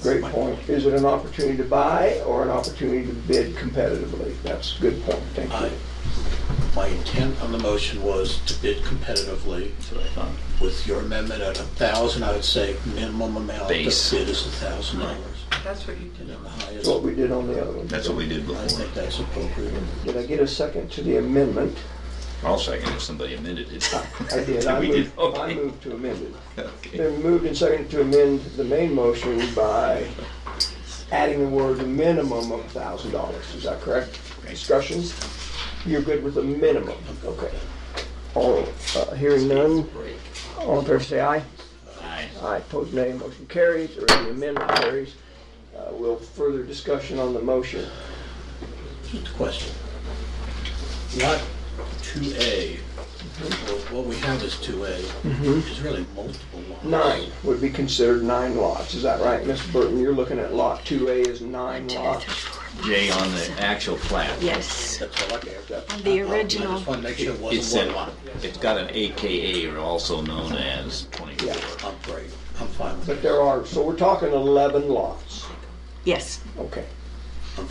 Great point. Is it an opportunity to buy or an opportunity to bid competitively? That's a good point, thank I, you. my intent on the motion was to bid competitively. With your amendment at a thousand, I would say minimum amount the bid Base. is a thousand dollars. That's what you And did. then the highest, That's what we did on the other one. That's what we did I before. think that's appropriate. Did I get a second to the amendment? I'll second if somebody amended it. I did. I We moved, did, I okay. moved to amend it. Okay. Then moved and seconded to amend the main motion by adding the word minimum of thousand dollars. Is that correct? Discussion? You're good with the minimum? Okay. All, uh, hearing none, all in favor say aye. Aye. Aye, opposed nay, motion carries, or the amendment carries. Uh, We'll further discussion on the motion. Just a question. Lot two A, what we have is two A, is really multiple lots. Nine would be considered nine lots, is that right, Mr. Burton? You're looking at lot 2A is nine lots. Jay, on the actual plat. Yes, That's all I care about. the I original. just want to make sure it It's wasn't said, one lot. it's got an AKA, or also known as 24. I'm great, I'm fine with But it. there are, so we're talking 11 lots. Yes, Okay,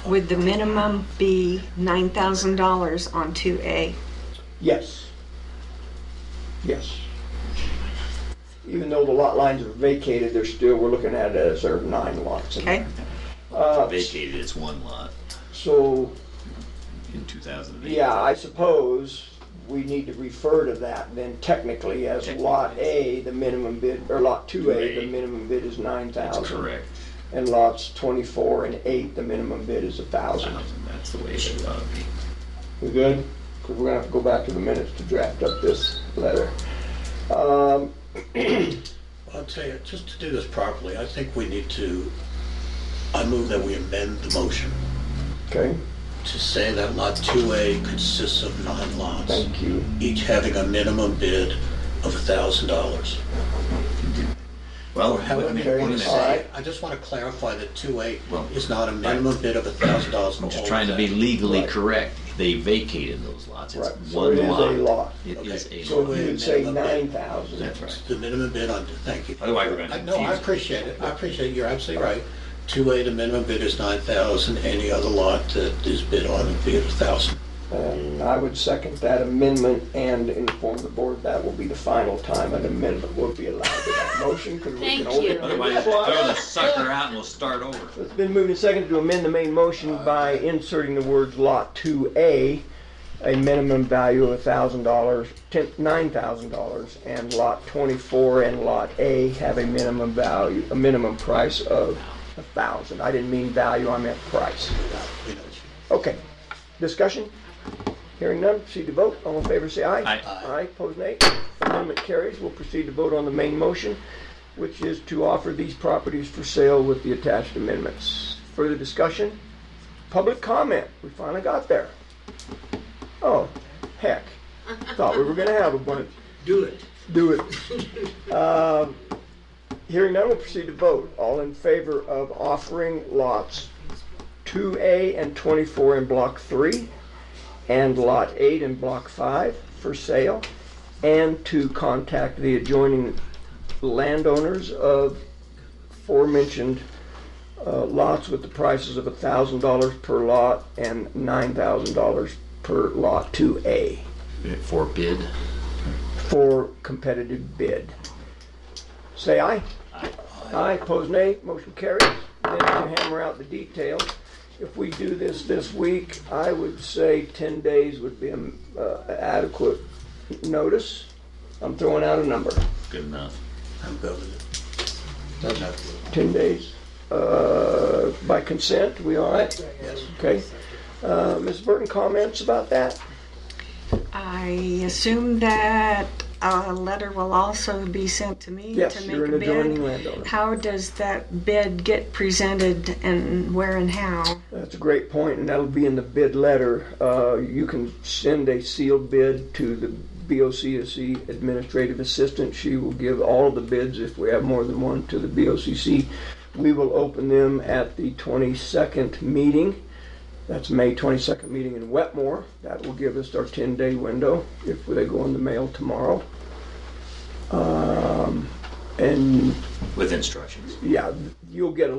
would the minimum be nine thousand dollars on two A? yes. Yes. Even though the lot lines are vacated, there's still, we're looking at it as there are nine lots. in there. Okay, Vacated its one lot So in 2008. Yeah, I suppose we need to refer to that then technically as Lot A, the minimum bid, or Lot 2A, the 2A. minimum bid is 9,000. That's correct. And lots 24 and 8, the minimum bid is Uh-huh. 1,000. That's the way it should ought to be. We good? Because we're gonna have to go back to the minutes to draft up this letter. Um, I'll tell you, just to do this properly, I think we need to, I move that we amend the motion Okay, to say that lot 2A consists of nine lots, thank you. each having a minimum bid of $1,000. Well, Have I a mean, Okay, what minimum is all that? right. say, I just want to clarify that 2A Well, is not a minimum bid of $1,000 for I'm just all trying to of be that. legally Right. correct. They vacated those lots. It's Right, so one it is a lot. lot. It Okay. is a So lot. we would say Minimum bid. 9,000. That's right. The minimum bid on, thank you. Otherwise, we're I- going to No, I confuse. appreciate it, I appreciate, it. you're absolutely right. 2A, the minimum bid is 9,000, any other lot that is bid on would be 1,000. And I would second that amendment and inform the board that will be the final time an amendment will be allowed to that motion. 'cause we can Thank only you. do Otherwise, one. throw the sucker out and we'll start over. It's been moved and seconded to amend the main motion by inserting the words Lot 2A, a minimum value of $1,000, ten- $9,000, and Lot 24 and Lot A have a minimum value, a minimum price of 1,000. I didn't mean value, I meant price. We know it's- Okay, discussion? Hearing none, proceed to vote. All in favor, say aye. Aye. Aye. Aye, pose nay. Amendment carries. We'll proceed to vote on the main motion, which is to offer these properties for sale with the attached amendments. Further discussion? Public comment. We finally got there. Oh, heck. Thought we were gonna have a bunch. Do it. Do it. Um, Hearing none, we'll proceed to vote. All in favor of offering lots 2A and 24 in Block 3, and Lot 8 in Block 5 for sale, and to contact the adjoining landowners of aforementioned uh, lots with the prices of $1,000 per lot and $9,000 per Lot 2A Forbid. for competitive bid. Say aye. Aye, pose nay, motion carries. Then you hammer out the details. If we do this this week, I would say 10 days would be um, uh, adequate notice. I'm throwing out a number, Good enough. I'm good with it. Doesn't have to. 10 days. Uh, By consent, we all right? Yes. Okay. Uh, Ms. Burton, comments about that? I assume that a letter will also be sent to me Yes, to you're make an a adjoining bid. landowner. How does that bid get presented and where and how? That's a great point, and that'll be in the bid letter. Uh, You can send a sealed bid to the BOCC E Administrative Assistant. She will give all the bids, if we have more than one, to the BOCC. E, We will open them at the 22nd meeting. That's May 22nd meeting in Wetmore. That will give us our 10-day window if they go in the mail tomorrow. Um, And, With instructions. yeah, you'll get a